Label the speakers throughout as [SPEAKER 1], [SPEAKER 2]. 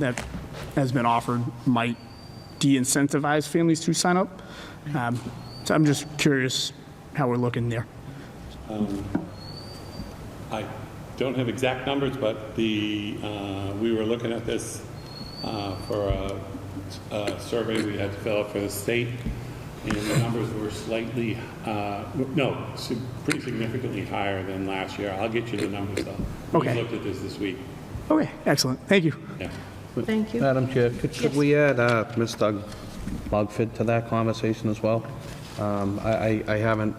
[SPEAKER 1] that has been offered might de-incentivize families to sign up. Um, So I'm just curious how we're looking there.
[SPEAKER 2] I don't have exact numbers, but the, uh, we were looking at this uh, for a- a survey we had to fill out for the state, and the numbers were slightly, uh, no, sig- pretty significantly higher than last year. I'll get you the numbers, though.
[SPEAKER 1] Okay.
[SPEAKER 2] We looked at this this week,
[SPEAKER 1] Okay, excellent, thank you.
[SPEAKER 2] yeah.
[SPEAKER 3] Thank you.
[SPEAKER 4] Madam Chair, could could we add uh, Ms. Doug Mugford to that conversation as well? Um, I I- I haven't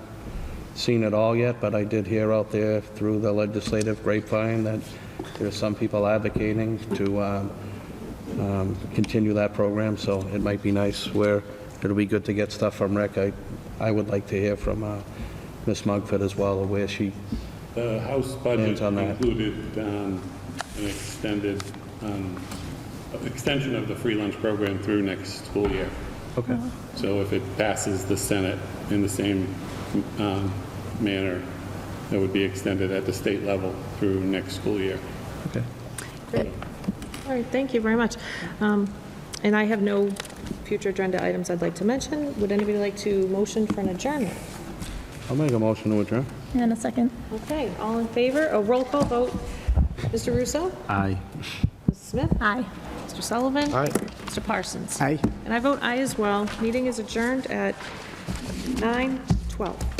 [SPEAKER 4] seen it all yet, but I did hear out there through the legislative grapevine that there's some people advocating to um, um, continue that program, so it might be nice where it'll be good to get stuff from rec. I I would like to hear from uh, Ms. Mugford as well, where she,
[SPEAKER 2] The House budget
[SPEAKER 4] Hands on that.
[SPEAKER 2] included um, an extended, um, extension of the free lunch program through next school year.
[SPEAKER 4] okay,
[SPEAKER 2] So if it passes the Senate in the same um, manner, it would be extended at the state level through next school year.
[SPEAKER 4] okay.
[SPEAKER 3] All right, thank you very much. Um, And I have no future agenda items I'd like to mention. Would anybody like to motion for an adjournment?
[SPEAKER 4] I'll make a motion to adjourn.
[SPEAKER 5] And a second.
[SPEAKER 3] Okay, all in favor? A roll call vote. Mr. Russo?
[SPEAKER 4] Aye.
[SPEAKER 3] Mrs. Smith?
[SPEAKER 5] Aye.
[SPEAKER 3] Mr. Sullivan?
[SPEAKER 4] Aye.
[SPEAKER 3] Mr. Parsons?
[SPEAKER 1] Aye.
[SPEAKER 3] And I vote aye as well. Meeting is adjourned at 9:12.